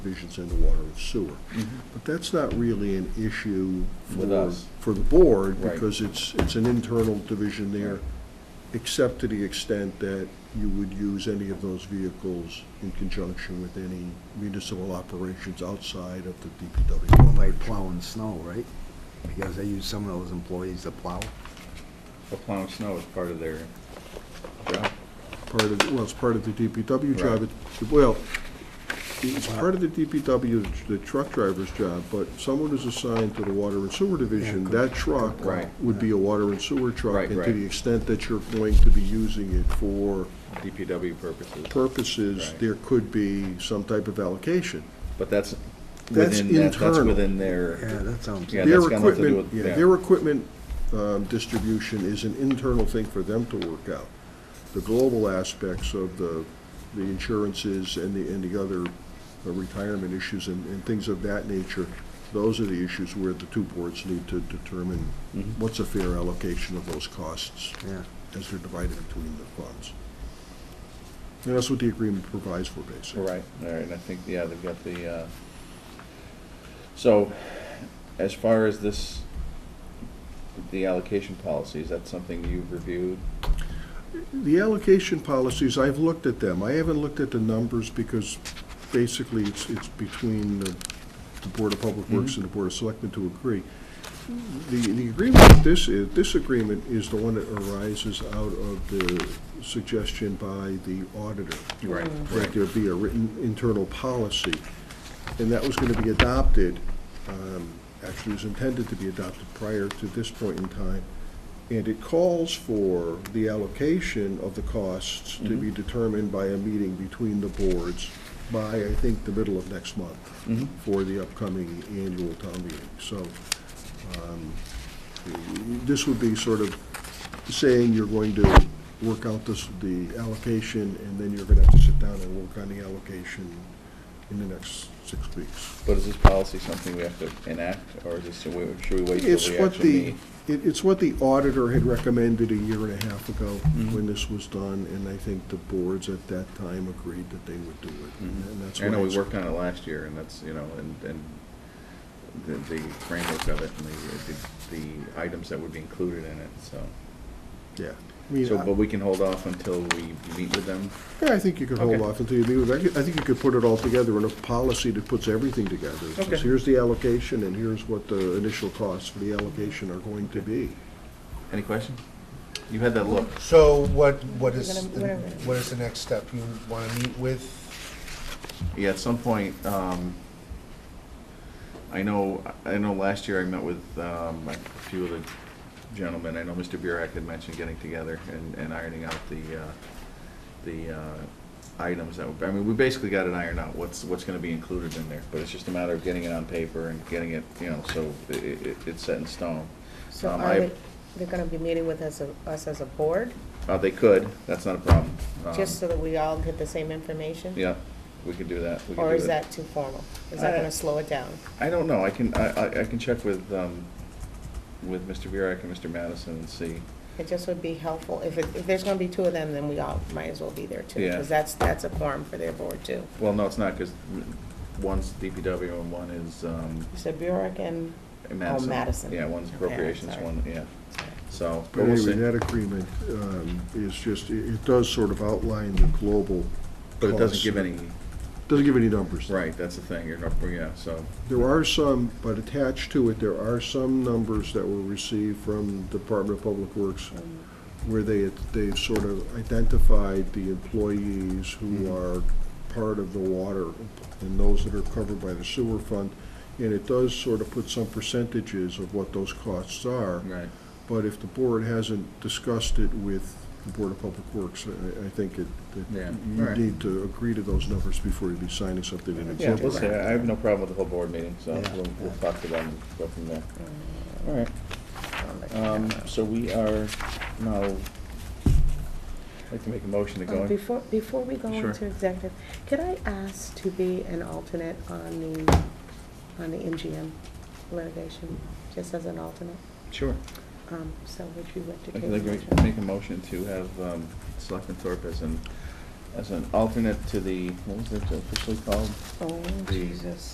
provisions in the water and sewer. But that's not really an issue Mm-hmm. With for, us. for the board, Right. because it's, it's an internal division there, except to the extent that you would use any of those vehicles in conjunction with any municipal operations outside of the DPW. By plowing snow, right? Because they use some of those employees to plow. The plowing snow is part of their job. part of, well, it's part of the DPW job. Right. It- Well, it's part of the DPW, the truck driver's job, but someone is assigned to the water and sewer division, Yeah, good, that truck good call. Right. would be a water and sewer truck. Right, And to right. the extent that you're going to be using it for DPW purposes. purposes, Right. there could be some type of allocation. But that's That's within, that- that's internal. within Yeah, their, that sounds. Yeah, Their that's got nothing to do equipment- with- yeah, yeah. Their equipment um, distribution is an internal thing for them to work out. The global aspects of the, the insurances and the, and the other uh, retirement issues and, and things of that nature, those are the issues where the two boards need to determine Mhm. what's a fair allocation of those costs Yeah, as they're divided between the funds. And that's what the agreement provides for, basically. right, all right, and I think, yeah, they've got the, uh, so as far as this, the allocation policy, is that something you've reviewed? The allocation policies, I've looked at them. I haven't looked at the numbers because basically it's, it's between the the Board of Public Works and the Board of Selectmen to agree. The, the agreement, with this is, this agreement is the one that arises out of the suggestion by the auditor. Right, That there be a written internal policy. And that was going to be adopted, um, actually was intended to be adopted prior to this point in time. And it calls for the allocation of the costs to be determined by a meeting between the boards by, I think, the middle of next month Mhm. for the upcoming annual town meeting. So um, this would be sort of saying you're going to work out this, the allocation, and then you're going to have to sit down and work on the allocation in the next six weeks. But is this policy something we have to enact, or is this, should we should we wait It's till we what actually the, meet? it- it's what the auditor had recommended a year and a half ago Mhm. when this was done, and I think the boards at that time agreed that they would do it. Mhm. And Mm-hmm. that's I know why we it's- worked on it last year, and that's, you know, and, and the, the framework of it, and the, the items that would be included in it, so. Yeah. I mean, So, I- but we can hold off until we meet with them? Yeah, I think you could hold Okay. off until you meet with, I could- I think you could put it all together in a policy that puts everything together. It says, Okay. Here's the allocation, and here's what the initial costs for the allocation are going to be. Any question? You had that look. So what, what We're is, gonna- the- we're gonna- what is the next step? You want to meet with, Yeah, at some point, um, I know, I know last year I met with, um, a few of the gentlemen. I know Mr. Burek had mentioned getting together and, and ironing out the, uh, the, uh, items that, would- I mean, we basically got it ironed out, what's, what's gonna be included in there. But it's just a matter of getting it on paper and getting it, you know, so i- i- it, it's set in stone. So Um, are I- they, they're gonna be meeting with us, a- us as a board, Uh, they could, that's not a problem. Um, just so that we all get the same information? Yeah, we could do that. We could Or do is it. that too formal? Is that I- gonna slow it down? I don't know, I can, I, I- I can check with, um, with Mr. Burek and Mr. Madison and see. It just would be helpful, if it, if there's gonna be two of them, then we all might as well be there too. Yeah. Because that's, that's a forum for their board too. Well, no, it's not, because one's DPW and one is, um, You said Burek and, Madison. Oh, Madison. Yeah, one's Okay, appropriations, sorry. one, yeah, so. But but we'll anyway, see. that agreement um, is just, it it does sort of outline the global But it doesn't costs. give any, Doesn't give any numbers. right, that's the thing, you're not, yeah, so, There are some, but attached to it, there are some numbers that were received from Department of Public Works where they, they've sort of identified the employees Mm-hmm. who are part of the water and those that are covered by the sewer fund. And it does sort of put some percentages of what those costs are. right. But if the board hasn't discussed it with the Board of Public Works, I, I think it, Yeah, that all you right. need to agree to those numbers before you be signing something in Yeah, we'll executive. see, I I have no problem with the whole board meeting, so Yeah. we'll, we'll talk to them and go from there. All right. I'll let you Um, know. so we are now, I'd like to make a motion to go Oh, in. Before, before we go Sure. into executive, could I ask to be an alternate on the, on the MGM litigation, just as an alternate? Sure. Um, So would you like to I'd take? like the to motion? make a motion to have um, Selectman Thorpe as an as an alternate to the, what was it uh, officially called? Oh, The- Jesus.